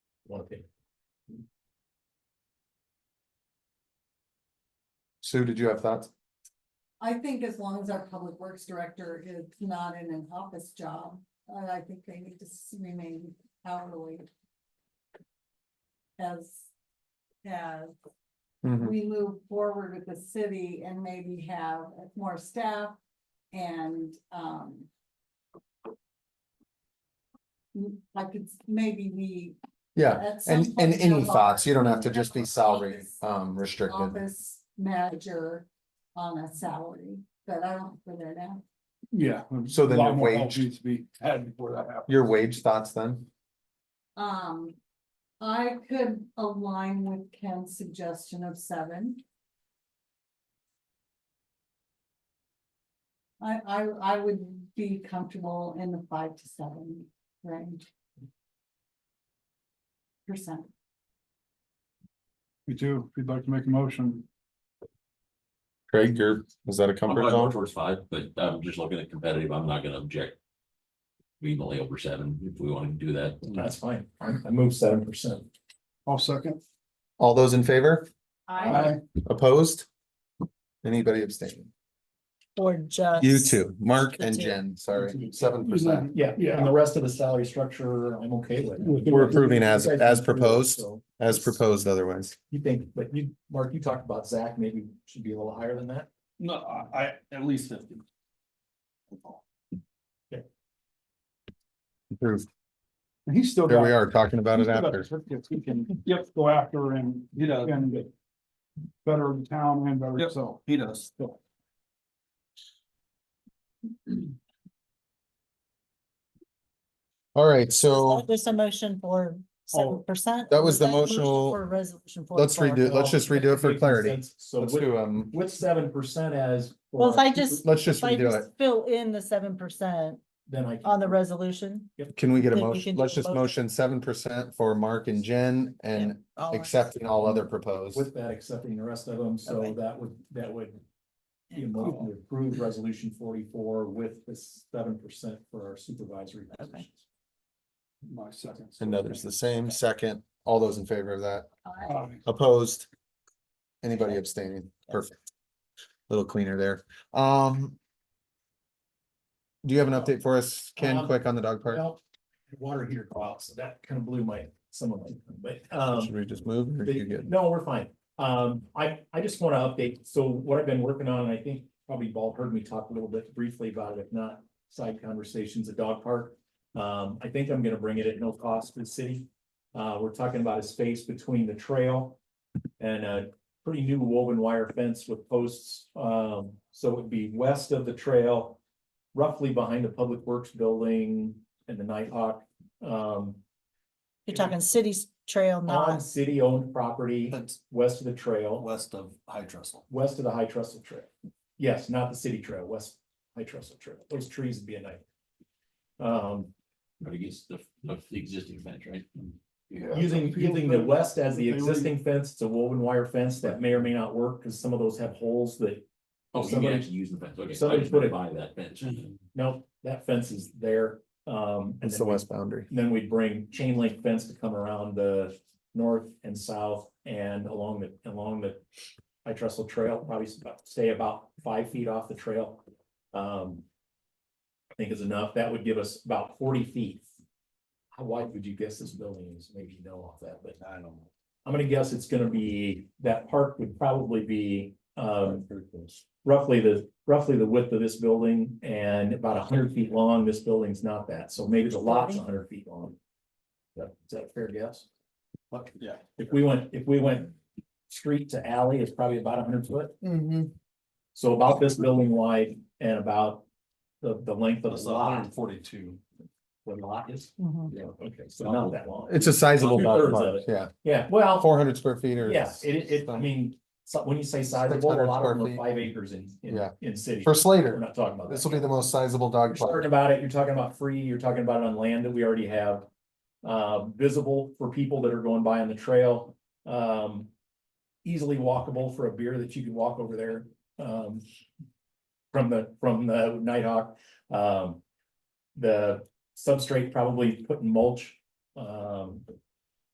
one opinion. Sue, did you have thoughts? I think as long as our public works director is not in an office job, uh, I think they need to s- remain hourly. As, as Mm-hmm. Mm-hmm. we move forward with the city and maybe have more staff and, um. m- mm, I could, s- maybe we. Yeah, at some and, and point any have our thoughts, you don't have to just be office- salary, um, restricted. Office manager on a salary, but I don't put it out. Yeah. So then a lot your more help wage- Needs to be had before that happens. Your wage thoughts then? Um, I could align with Ken's suggestion of seven. I, I, I would be comfortable in the five to seven range. Percent, You too, if you'd like to make a motion, Craig, your, is that a I'm probably more towards five, but I'm just looking at competitive, I'm not gonna object. Immediately over seven, if we want to do that. That's fine, I move seven percent. I'll second. All those in favor? I, Opposed? Anybody abstaining? Or just. You too, Mark The and two. Jen, sorry, seven percent. Yeah, yeah, and the rest of the salary structure, I'm okay with. We're approving as- as proposed. As proposed otherwise. You think, but you, Mark, you talked about Zach, maybe should be a little higher than that? No, I, I, at least fifty. Approved. And he's still. There got- we are, talking about he's it still got after. certificates He can, yep, go after and, he does, and better the town and better himself. He does. All right, Oh, so Oh, There's a motion for seven percent. that was the motional- For resolution. four let's four? redo, let's just redo it for clarity. So Let's with, do, um, with seven percent as. Well, if I just, let's just if I redo it. just fill in the seven percent Then I. on the resolution. Can we get a Then we motion? can Let's do a just motion. motion seven percent for Mark and Jen and all accepting all other proposed. With that, accepting the rest of them, so Okay. that would, that would. Be a motion to approve resolution forty-four with the seven percent for our supervisory positions. My second. And others the same, second, all those in favor of that, I, Aye. opposed? Anybody abstaining? Perfect. Little cleaner there, um. Do you have an update for us, Ken, Um, quick on the dog park? Well, Water heater go out, so that kind of blew my, some of my, but, um. Should we just move? or They- you good? No, we're fine. Um, I, I just want to update. So what I've been working on, I think probably you've all heard me talk a little bit briefly about it, if not side conversations at dog park. Um, I think I'm gonna bring it at no cost to the city. Uh, we're talking about a space between the trail and a pretty new woven wire fence with posts. Um, so it'd be west of the trail, roughly behind the Public Works Building and the Nighthawk. Um, Mm-hmm. You're talking cities trail, Um, on not, city-owned property, west of the trail. west of High Trestle. west of the High Trestle Trail. Yes, not the city trail, west High Trestle Trail. Those trees would be a night. Um, Or against the, of the existing fence, right? using, using the west as the They leave- existing fence, it's a woven wire fence that may or may not work, because some of those have holes that, Oh, you can Somebody- actually use the fence, okay. somebody put it- By that fence. no, that fence is there. Um, and It's the then, west boundary. then we'd bring chain link fence to come around the north and south and along the, along the High Trestle Trail, probably s- about- stay about five feet off the trail. Um, I think is enough. That would give us about forty feet. How wide would you guess this building is? Maybe you know off that, but I don't know. I'm gonna guess it's gonna be, that park would probably be, um, roughly the, roughly the width of this building and about hundred feet long. This building's not that, so maybe the lot's hundred feet long. Is that- Is that a fair guess? Yeah. If we went, if we went street to alley, it's probably about hundred foot. mm-hmm, Mhm. So about this building wide and about the, the length of That's the a hundred lot, and forty-two. the lot is, mm-hmm. Mhm. yeah, okay, so not that long. It's a sizable Two-thirds dog of park, it. yeah, Yeah, well, four hundred square feet or. yeah, it, it, I mean, so when you say sizable, a 600 lot of them square are feet. five acres in, in, Yeah. in cities. For We're Slater, not talking about. this that. will be the most sizable You're dog park. talking about it, you're talking about free, you're talking about it on land that we already have. Uh, visible for people that are going by on the trail, um. Easily walkable for a beer that you can walk over there, um. From the, from the Nighthawk, um. The substrate probably put in mulch, um,